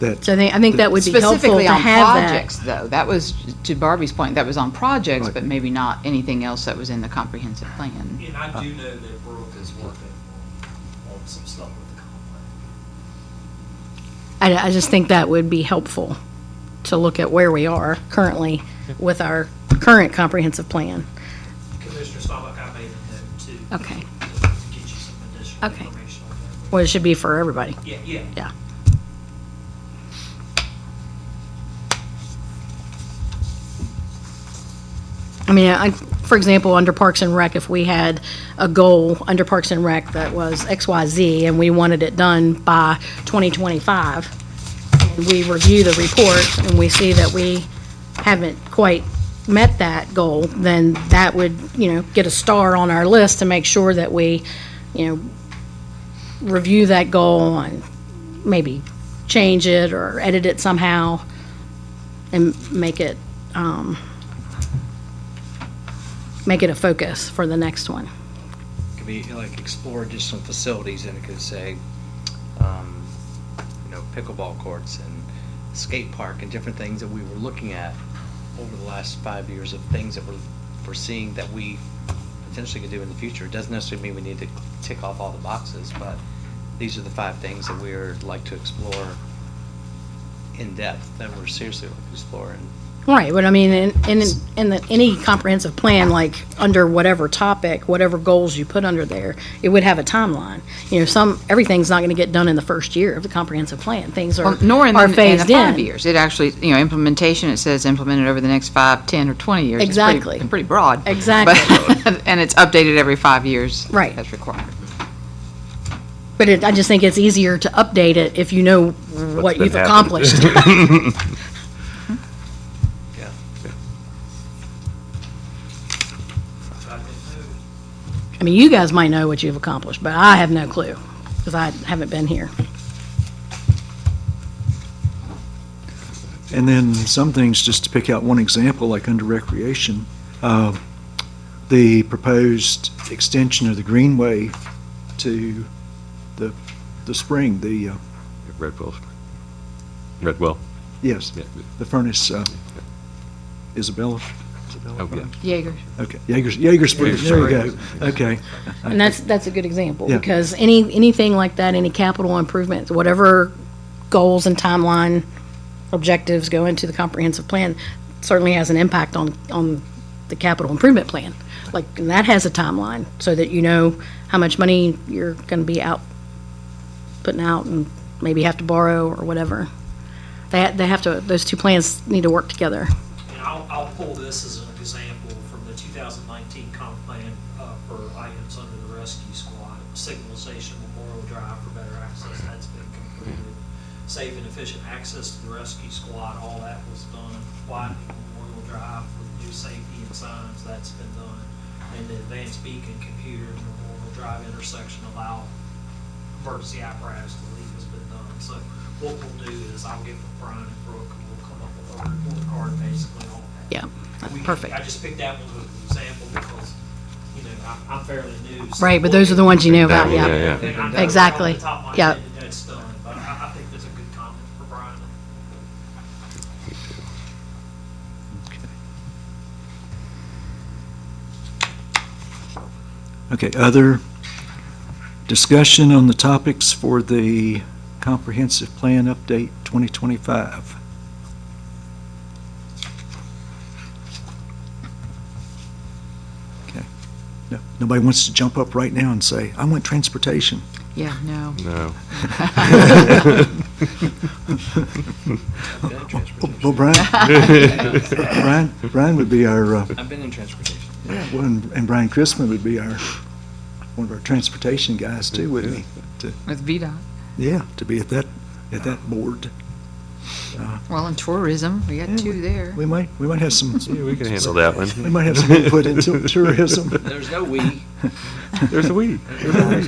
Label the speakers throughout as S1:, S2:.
S1: that,
S2: So I think, I think that would be helpful
S3: Specifically
S2: to
S3: on
S2: have that.
S3: projects, though, that was, to Barbie's point, that was on projects,
S1: Right.
S3: but maybe not anything else that was in the comprehensive plan.
S4: And I do know that Brooke is working on some stuff with the comp
S2: I, I just think that would be helpful to look at where we are currently with our current comprehensive plan.
S4: plan. Commissioner Stoppak, I made a note too.
S2: Okay.
S4: To get you some additional
S2: Okay.
S4: information on that.
S2: Well, it should be for everybody.
S4: Yeah, yeah.
S2: Yeah. I mean, I, for example, under Parks and Rec, if we had a goal under Parks and Rec that was X, Y, Z, and we wanted it done by 2025, and we review the report and we see that we haven't quite met that goal, then that would, you know, get a star on our list to make sure that we, you know, review that goal and maybe change it or edit it somehow and make it, um, make it a focus for the next one.
S5: could be like explore additional facilities and it could say, um, you know, pickleball courts and skate park and different things that we were looking at over the last five years of things that we're foreseeing that we potentially could do in the future. It doesn't necessarily mean we need to tick off all the boxes, but these are the five things that we're like to explore in depth, that we're seriously like to explore and
S2: Right, but I mean, in, in, in the, any comprehensive plan, like, under whatever topic, whatever goals you put under there, it would have a timeline. You know, some, everything's not gonna get done in the first year of the comprehensive plan. Things are,
S3: Well, Nor in the,
S2: are
S3: in the
S2: phased
S3: five
S2: in.
S3: years. It actually, you know, implementation, it says implemented over the next five, 10, or 20 years. It's pretty-
S2: Exactly.
S3: Pretty broad.
S2: Exactly.
S3: But- And it's updated every five years.
S2: Right.
S3: That's required.
S2: But it, I just think it's easier to update it if you know what
S6: been
S2: you've
S6: happening.
S2: accomplished.
S5: Yeah.
S4: I didn't know.
S2: I mean, you guys might know what you've accomplished, but I have no clue, because I haven't been here.
S1: and then some things, just to pick out one example, like under recreation, uh, the proposed extension of the greenway to the, the spring, the, uh,
S6: Red Bull. Red Well.
S1: yes,
S6: Yeah.
S1: the furnace, uh, Isabella? Isabella
S6: Oh, yeah.
S1: Furnace?
S3: Jaegers.
S1: Okay, Jaegers, Jaeger Spring, there we go, okay.
S2: And that's, that's a good example,
S1: Yeah.
S2: because any, anything like that, any capital improvements, whatever goals and timeline objectives go into the comprehensive plan, certainly has an impact on, on the capital improvement plan. Like, and that has a timeline, so that you know how much money you're gonna be out, putting out, and maybe have to borrow or whatever. They, ha- they have to, those two plans need to work together.
S4: And I'll, I'll pull this as an example from the 2019 comp plan uh, for items under the rescue squad. Signalization Memorial Drive for better access, that's been completed. Safe and efficient access to the rescue squad, all that was done. Widening Memorial Drive with new safety and signs, that's been done. And the advanced beacon computer in Memorial Drive intersection allow emergency apparatus to leave has been done. So what we'll do is I'll get with Brian and Brooke and we'll come up with a report card basically on that.
S2: Yeah,
S4: We-
S2: perfect.
S4: I just picked that one as an example because, you know, I'm- I'm fairly new. so-
S2: Right, but those are the ones you know about,
S6: Yeah,
S2: yeah.
S6: yeah.
S4: And I know off
S2: Exactly.
S4: the top of my
S2: Yeah.
S4: head that That's done, but I, I think that's a good comment for Brian.
S1: Okay, other discussion on the topics for the comprehensive plan update 2025? Okay, no, nobody wants to jump up right now and say, I want transportation.
S3: Yeah, no.
S6: No.
S5: I've been in
S1: Well,
S5: transportation.
S1: Brian, Brian, Brian would be our, uh,
S5: I've been in transportation.
S1: yeah, well, and and Brian Chrisman would be our, one of our transportation guys too, wouldn't he?
S3: With VDOT.
S1: Yeah, to be at that, at that board.
S3: Well, in tourism, we got two there.
S1: We might, we might have some.
S6: Yeah, we can handle that one.
S1: We might have some input into tourism.
S5: There's no we.
S6: There's a weed.
S4: Chairman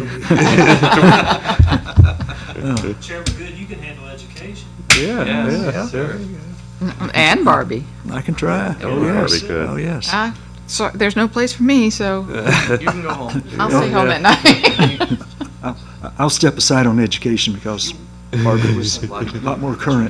S4: Good, you can handle education.
S6: Yeah,
S5: Yes,
S6: yeah,
S5: sir.
S3: And Barbie.
S1: I can try.
S6: Oh, yeah,
S1: yes.
S6: we could.
S1: Oh, yes.
S3: I, so, there's no place for me, so
S5: You can go home.
S3: I'll stay home at night.
S1: I'll step aside on education because Barbara was a lot more current.